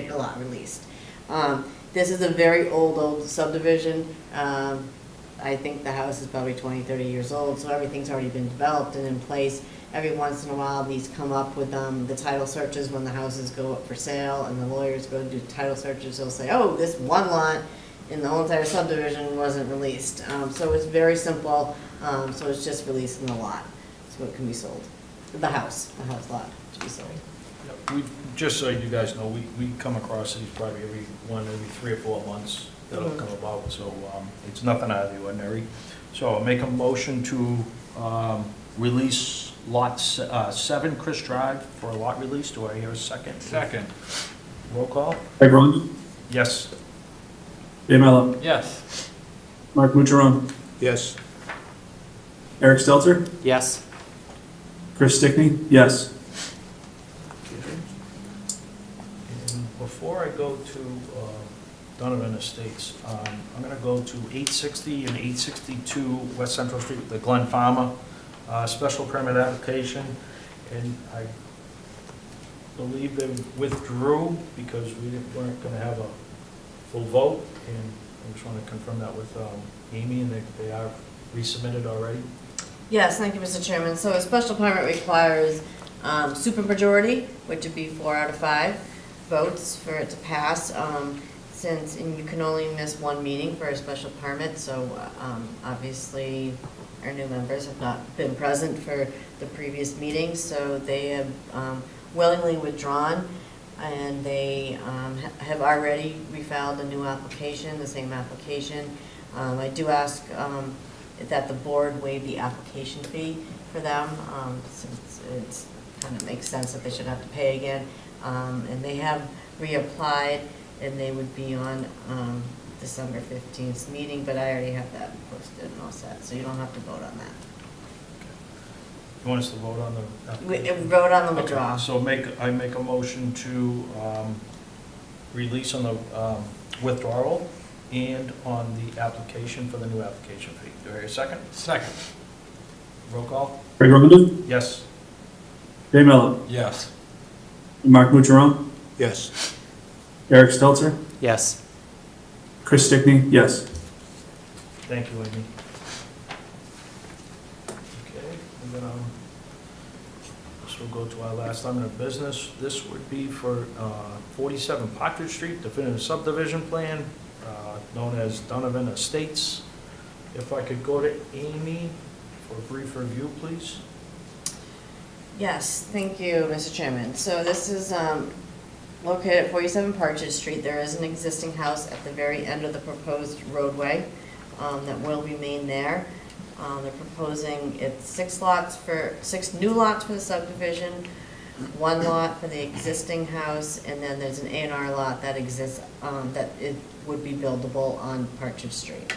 get a lot released. Um, This is a very old, old subdivision. Um, I think the house is probably 20, 30 years old, so everything's already been developed and in place. Every once in a while, these come up with um, the title searches when the houses go up for sale and the lawyers go do title searches. They'll say, oh, this one lot in the whole entire subdivision wasn't released. Um, So it's very simple, Um, so it's just releasing the lot, so it can be sold. The house, the house lot to be sold. We, just so you guys know, we, we come across these probably every one, every three or four months that'll Mhm. come about, so um, it's nothing out of the ordinary. So I'll make a motion to um, release lot se- uh, seven, Chris Drive, for a lot release. Do I hear a second? Second. Roll call? Craig Rondo, Yes. Dave Mello, Yes. Mark Mutjaron, Yes. Eric Stelter, Yes. Chris Stickney, yes. And Before I go to uh, Donovan Estates, um, I'm going to go to 860 and 862 West Central Street, the Glen Farmer uh, special permit application, and I believe they withdrew because we didn't- weren't going to have a full vote, and I just want to confirm that with um, Amy, and they- they are resubmitted already. Yes, thank you, Mr. Chairman. So a special permit requires um, supermajority, which would be four out of five votes for it to pass, um, since, and you can only miss one meeting for a special permit, so um, obviously our new members have not been present for the previous meeting, so they have um, willingly withdrawn, and they um, ha- have already refiled a new application, the same application. Um, I do ask um, that the board waive the application fee for them, um, since it's, kind of makes sense that they should have to pay again. Um, And they have reapplied, and they would be on um, December 15th 's meeting, but I already have that posted and all set, so you don't have to vote on that. You want us to vote on the We- application? uh, Vote on the Okay, withdrawal. So make, I make a motion to um, release on the um, withdrawal and on the application for the new application fee. Do I hear a second? Second. Roll call? Craig Rondo, Yes. Dave Mello, Yes. Mark Mutjaron, Yes. Eric Stelter, Yes. Chris Stickney, yes. Thank you, Amy. Okay, and then um, this will go to our last item of business. This would be for uh, 47 Partridge Street, definitive subdivision plan, uh, known as Donovan Estates. If I could go to Amy for a brief review, please. Yes, thank you, Mr. Chairman. So this is um, located at 47 Partridge Street. There is an existing house at the very end of the proposed roadway um, that will remain there. Um, They're proposing, it's six lots for, six new lots for the subdivision, one lot for the existing house, and then there's an A and R lot that exists, um, that it would be buildable on Partridge Street.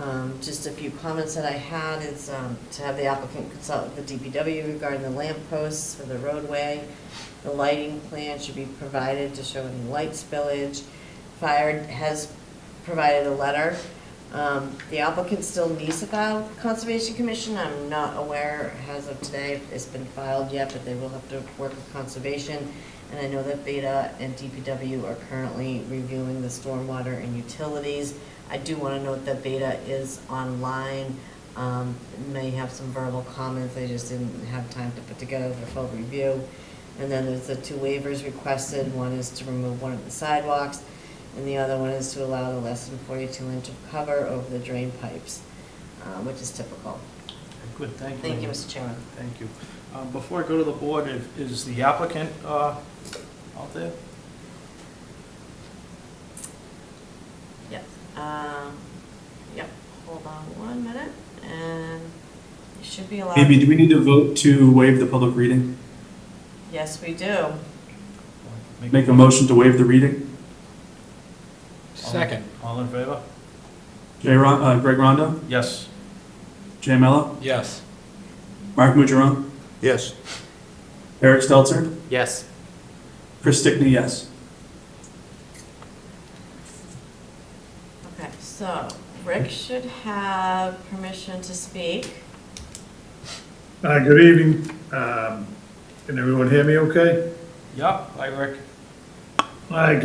Um, Just a few comments that I had is um, to have the applicant consult with the DPW regarding the lamp posts for the roadway. The lighting plan should be provided to show any light spillage. Fire has provided a letter. Um, The applicant still needs to file with the Conservation Commission. I'm not aware as of today if it's been filed yet, but they will have to work with Conservation. And I know that Beta and DPW are currently reviewing the stormwater and utilities. I do want to note that Beta is online, um, may have some verbal comments, they just didn't have time to put together their full review. And then there's the two waivers requested, one is to remove one of the sidewalks, and the other one is to allow the less than forty-two inch of cover over the drain pipes, uh, which is typical. Good, thank you. Thank you, Amy. Mr. Chairman. Thank you. Um, Before I go to the board, if- is the applicant uh, out there? Yes. Um, yep, hold on one minute, and it should be allowed. Amy, do we need to vote to waive the public reading? Yes, we do. Make a motion to waive the reading? Second. All in favor? Jay Ron, uh, Greg Rondo, Yes. Jay Mello, Yes. Mark Mutjaron, Yes. Eric Stelter, Yes. Chris Stickney, yes. Okay, so Rick should have permission to speak. Uh, Good evening. Um, Can everyone hear me okay? Yep, I Rick. Hi,